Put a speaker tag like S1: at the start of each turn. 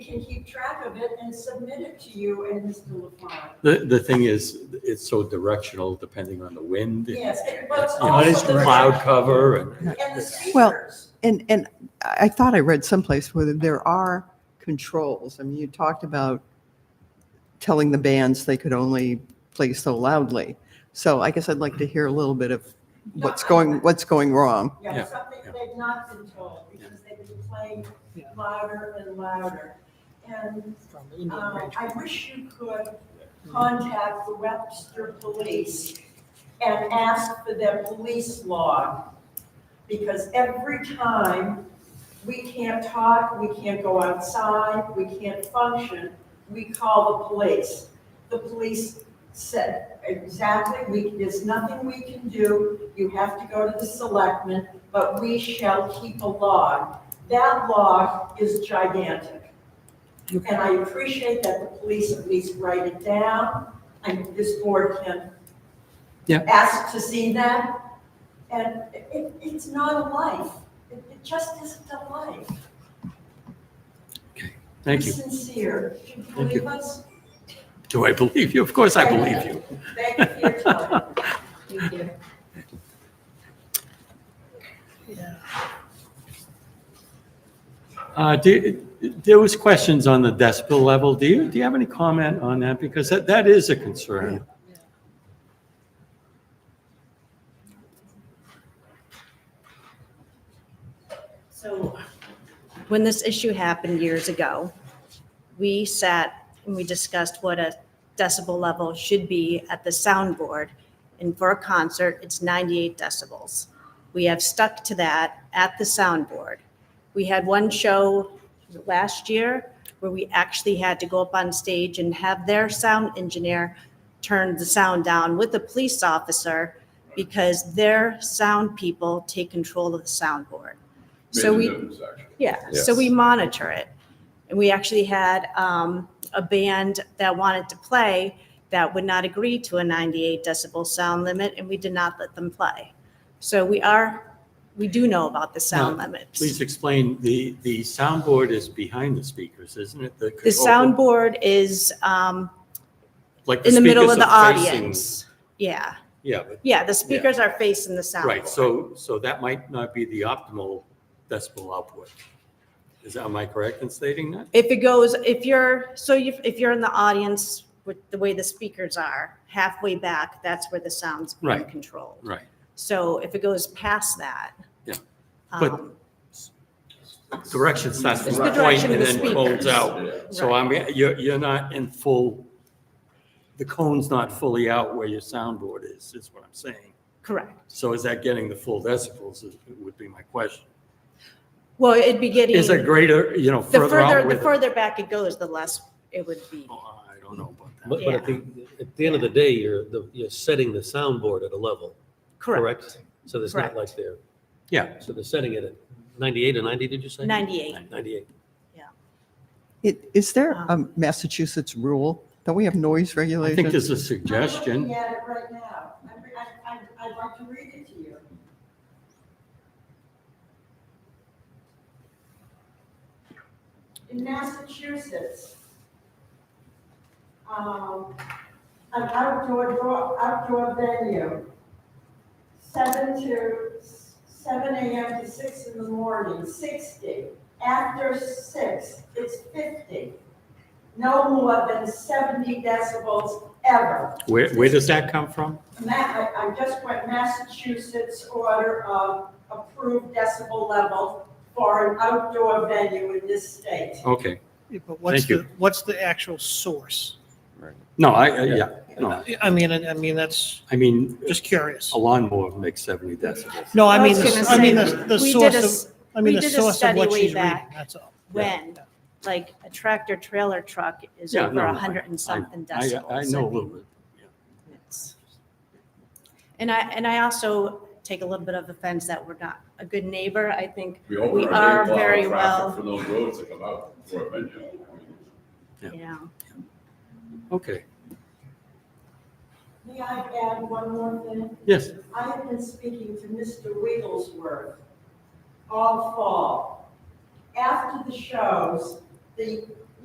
S1: can keep track of it and submit it to you and Mr. LaFawn.
S2: The, the thing is, it's so directional depending on the wind. and,
S1: Yes, and- but it's
S2: you know,
S3: What is
S1: also the.
S2: Cloud cover and,
S1: And the
S4: Well,
S1: speakers.
S4: And, and I I thought I read someplace where there are controls. I mean, you talked about telling the bands they could only play so loudly. So I guess I'd like to hear a little bit of
S1: No,
S4: what's
S1: I-
S4: going, what's going wrong.
S1: Yeah,
S2: Yeah,
S1: something
S2: yeah.
S1: they've not been told, because they've been playing
S4: Yeah.
S1: louder and louder. And
S5: Um,
S1: uh, I wish you could contact the Webster Police and ask for their police log, because every time we can't talk, we can't go outside, we can't function, we call the police. The police said, exactly, we, there's nothing we can do, you have to go to the selectmen, but we shall keep a log. That log is gigantic. And I appreciate that the police at least write it down, and this board can
S2: Yeah.
S1: ask to see that. And it, it's not a life, it, it just isn't a life.
S2: thank you.
S1: Be sincere, do you
S2: you.
S1: believe us?
S2: Do I believe you? Of course I believe you.
S1: Thank you for your time. Thank you.
S2: Uh, do, there was questions on the decibel level. Do you, do you have any comment on that? Because that, that is a concern.
S5: So when this issue happened years ago, we sat and we discussed what a decibel level should be at the soundboard. And for a concert, it's 98 decibels. We have stuck to that at the soundboard. We had one show last year where we actually had to go up on stage and have their sound engineer turn the sound down with a police officer because their sound people take control of the soundboard. So we. Yeah, so we monitor it. And we actually had um, a band that wanted to play that would not agree to a 98 decibel sound limit, and we did not let them play. So we are, we do know about the sound
S2: Now,
S5: limits.
S2: Please explain, the, the soundboard is behind the speakers, isn't it?
S5: The
S2: oh.
S5: soundboard is um, in the middle of the audience. Yeah,
S2: Yeah, but,
S5: yeah, the speakers are facing the soundboard.
S2: right, so, so that might not be the optimal decibel output. Is, that am I correct in stating that?
S5: If it goes, if you're, so you, if you're in the audience with the way the speakers are, halfway back, that's where the sound's being
S2: Right.
S5: controlled.
S2: Right.
S5: So if it goes past that.
S2: Yeah, but-
S5: um,
S2: Direction starts from
S5: It's
S2: the
S5: the
S2: point
S5: direction
S2: and
S5: of the
S2: then folds
S5: speakers.
S2: out. So I mean, you're, you're not in full, the cone's not fully out where your soundboard is, is what I'm saying.
S5: Correct.
S2: So is that getting the full decibels is- would be my question.
S5: Well, it'd be getting,
S2: Is it
S5: the
S2: greater, you know, further
S5: further,
S2: out
S5: the
S2: with?
S5: further back it goes, the less it would be.
S2: Oh, I don't know about that.
S3: But, but at the, at the end of the day, you're, the- you're setting the soundboard at a level,
S5: Correct.
S3: correct? So there's not like there,
S2: Yeah,
S3: so they're setting it at 98 or 90, did you say?
S5: 98.
S3: 98.
S4: It, is there a
S5: Um,
S4: Massachusetts rule? Don't we have noise
S2: I
S4: regulations?
S2: think there's a
S1: I'm
S2: suggestion.
S1: looking at it right now. I'm re- I, I, I'd like to read it to you. In Massachusetts, um, an outdoor, draw- outdoor venue, seven to, seven AM to six in the morning, sixty. After six, it's fifty. No more than seventy decibels ever.
S2: Where, where does that come from?
S1: Ma, I, I just went Massachusetts order of approved decibel level for an outdoor venue in this state.
S2: Okay,
S6: Yeah, But what's
S2: Thank you.
S6: the, what's the actual source?
S2: no, I, I- yeah, no,
S6: I mean, I I mean, that's
S2: I mean,
S6: just curious.
S2: a lawnmower makes 70 decibels.
S6: No, I
S5: I
S6: mean,
S5: was
S6: the-
S5: gonna
S6: I mean,
S5: say,
S6: the, the
S5: we did
S6: source
S5: a s-
S6: of, I mean,
S5: we
S6: the
S5: did a
S6: source of
S5: study
S6: what
S5: way
S6: she's reading,
S5: back.
S6: that's all.
S5: When, like a tractor trailer truck is
S2: Yeah,
S5: over
S2: no,
S5: a
S2: I-
S5: hundred and something
S2: I-
S5: decibels.
S2: I know a little bit.
S5: It's- And I, and I also take a little bit of offense that we're not a good neighbor. I think,
S7: We hope
S5: We
S7: we're a
S5: are
S7: big
S5: very
S7: block of
S5: well-
S7: traffic for those roads to come out for a venue. I mean,
S2: Yeah.
S5: you know,
S2: Okay,
S1: May I add one more thing?
S2: yes.
S1: I have been speaking to Mr. Wigglesworth all fall. After the shows, the